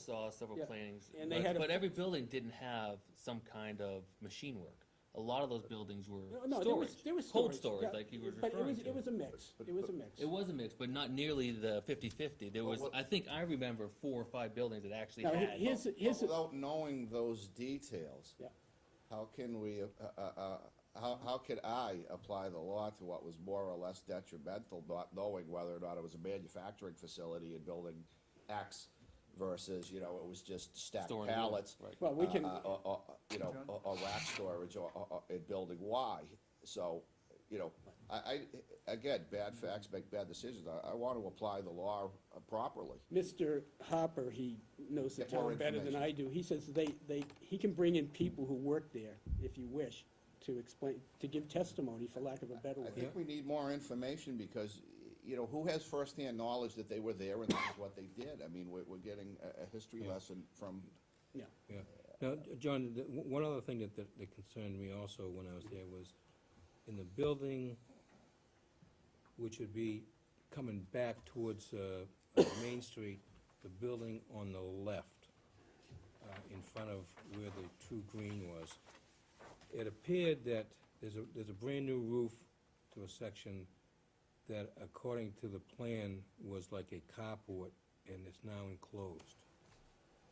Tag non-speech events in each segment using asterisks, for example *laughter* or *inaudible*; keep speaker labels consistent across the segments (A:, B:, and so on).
A: saw several
B: Yeah,
A: plannings.
B: and they
A: but-
B: had a-
A: But every building didn't have some kind of machine work. A lot of those buildings
B: No,
A: were
B: no, there was,
A: storage.
B: there was storage.
A: Cold storage,
B: yeah,
A: like you were
B: But it
A: referring
B: was, it was
A: to.
B: a mix,
C: But-
B: it was a
C: but-
B: mix.
A: It was a mix, but not nearly the fifty-fifty. There
C: Well,
A: was,
C: what-
A: I think I remember four or five buildings that actually
B: Now, he-
A: had.
B: here's, here's,
C: But Without knowing those details.
B: Yeah.
C: How can we, uh, uh, uh, how, how could I apply the law to what was more or less detrimental, not knowing whether or not it was a manufacturing facility and building X versus, you know, it was just stacked
A: Storing wood,
C: pallets?
A: right.
B: well, we can,
C: uh, uh, uh, uh, you know, a- a rack storage or, or- or in building Y. So, you know, I, I, again, bad facts make bad decisions. I, I want to apply the law uh, properly.
B: Mr. Hopper, he knows the
C: Get more
B: town better than I do, he says they, they, he can bring in people who work there, if you wish, to explain, to give testimony, for lack of a better
C: I
B: word.
C: think we need more information because, you know, who has firsthand knowledge that they were there and this is what they did? I mean, we're, we're getting a, a history lesson from,
B: Yeah,
D: Yeah. Now, J- John, the, w- one other thing that, that that concerned me also when I was there was, in the building, which would be coming back towards, uh, uh, Main Street, the building on the left, uh, in front of where the true green was, it appeared that there's a, there's a brand-new roof to a section that according to the plan was like a carport and is now enclosed.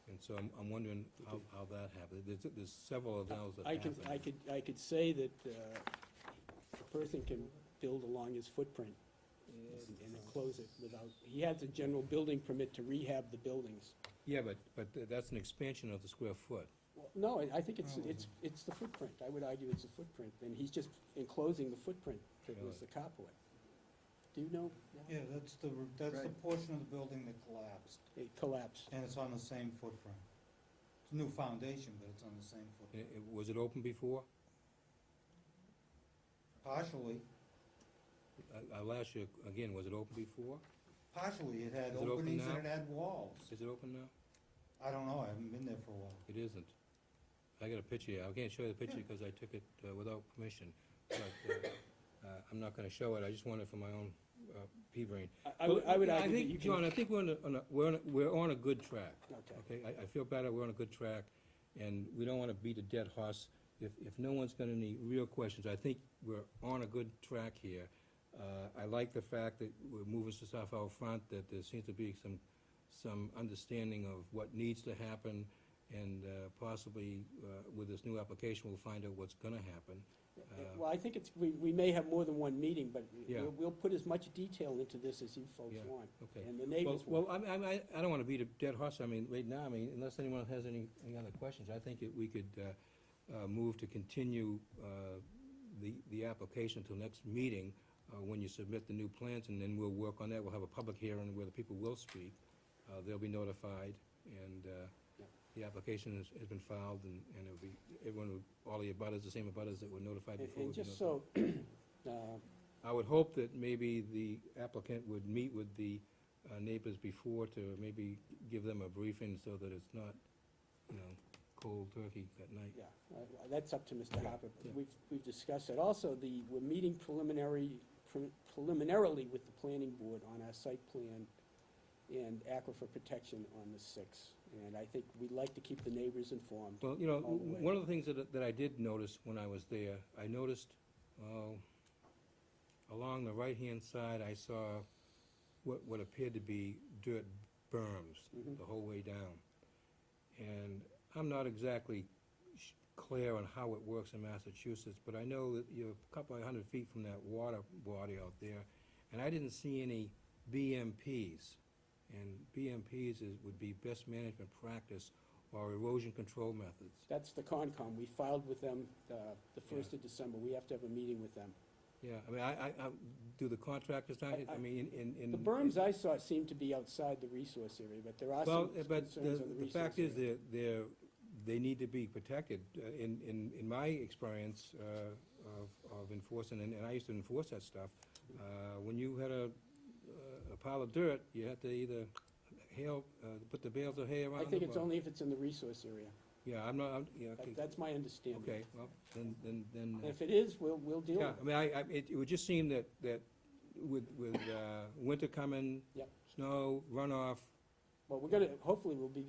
D: And so I'm, I'm wondering how, how that happened. There's, there's several of those that
B: I can,
D: happened.
B: I could, I could say that, uh, a person can build along his footprint and enclose it without, he has a general building permit to rehab the buildings.
D: Yeah, but, but th- that's an expansion of the square foot.
B: Well, No, I- I think it's, it's, it's the footprint, I would argue it's the footprint, and he's just enclosing the footprint that was the carport. Do you know?
E: Yeah, that's the, that's the portion of the building that collapsed,
B: It collapsed.
E: and it's on the same footprint. It's a new foundation, but it's on the same
D: I-
E: footprint.
D: i- was it open before?
E: Partially,
D: I, I Uh, last year, again, was it open before?
E: partially,
D: Is
E: it had
D: it open
E: openings
D: now?
E: and it had walls.
D: Is it open now?
E: I don't know, I haven't been there for a while.
D: It isn't. I got a picture here. I can't show you the picture because I took it uh, without permission. But, uh, uh, I'm not gonna show it. I just want it for my own, uh, pea brain.
B: I- I would, I would
D: Well,
B: argue that
D: think,
B: you
D: John,
B: can, Uh,
D: I think we're on a- on a, we're on, a- we're on a good track.
B: Okay.
D: Okay, I, I feel better, we're on a good track, and we don't wanna beat a dead horse. If, if no one's got any real questions, I think we're on a good track here. Uh, I like the fact that we're moving some stuff out front, that there seems to be some, some understanding of what needs to happen, and uh, possibly uh, with this new application, we'll find out what's gonna happen. Uh,
B: well, I think it's, we, we may have more than one meeting, but
D: Yeah.
B: we'll, we'll put as much detail into this as you folks
D: Yeah,
B: want.
D: okay.
B: And the
D: Well,
B: neighbors
D: well,
B: want.
D: I, mean, I, I don't wanna beat a dead horse, I mean, right now, I mean, unless anyone has any, any other questions, I think that we could, uh, uh, move to continue, uh, the, the application till next meeting, uh, when you submit the new plans, and then we'll work on that, we'll have a public hearing where the people will speak, uh, they'll be notified, and, uh,
B: Yeah.
D: the application has, has been filed, and, and it'll be, everyone, will- all the abutters, the same abutters that were notified
B: And
D: before.
B: and
D: will be
B: just
D: notified.
B: so, *clears throat* uh,
D: I would hope that maybe the applicant would meet with the uh, neighbors before to maybe give them a briefing so that it's not, you know, cold turkey that night.
B: Yeah, uh, that's up to Mr.
D: Yeah,
B: Harper, but
D: yeah.
B: we've, we've discussed it. Also, the, we're meeting preliminary, pre- preliminarily with the planning board on our site plan and aquifer protection on the sixth, and I think we'd like to keep the neighbors informed.
D: Well, you know,
B: All the way.
D: one of the things that, that I did notice when I was there, I noticed, uh, along the right-hand side, I saw what, what appeared to be dirt berms
B: Mm-hmm.
D: the whole way down. And I'm not exactly sh- clear on how it works in Massachusetts, but I know that you're a couple of hundred feet from that water body out there, and I didn't see any BMPs. And BMPs is, would be best management practice or erosion control methods.
B: That's the Concom, we filed with them, uh, the first of December, we have to have a meeting with them.
D: Yeah, I mean, I, I, I, do the contractors not, I mean, in, in.
B: The berms I saw seem to be outside the resource area, but there are some
D: Well,
B: concerns on
D: but
B: the
D: the,
B: resource
D: the fact is
B: area.
D: that they're, they need to be protected. Uh, In, in, in my experience uh, of, of enforcing, and and I used to enforce that stuff, uh, when you had a, a pile of dirt, you had to either hail, uh, put the bales of hay around
B: I
D: them.
B: think it's
D: or-
B: only if it's in the resource area,
D: Yeah, I'm not, I'm, yeah,
B: That-
D: okay,
B: that's my understanding.
D: okay, well, then, then, then.
B: And
D: uh,
B: If it is, we'll, we'll deal with
D: Yeah,
B: it.
D: I mean, I, I, it, it would just seem that, that with, with, uh, winter coming.
B: Yep.
D: Snow, runoff,
B: Well, we're gonna, hopefully we'll be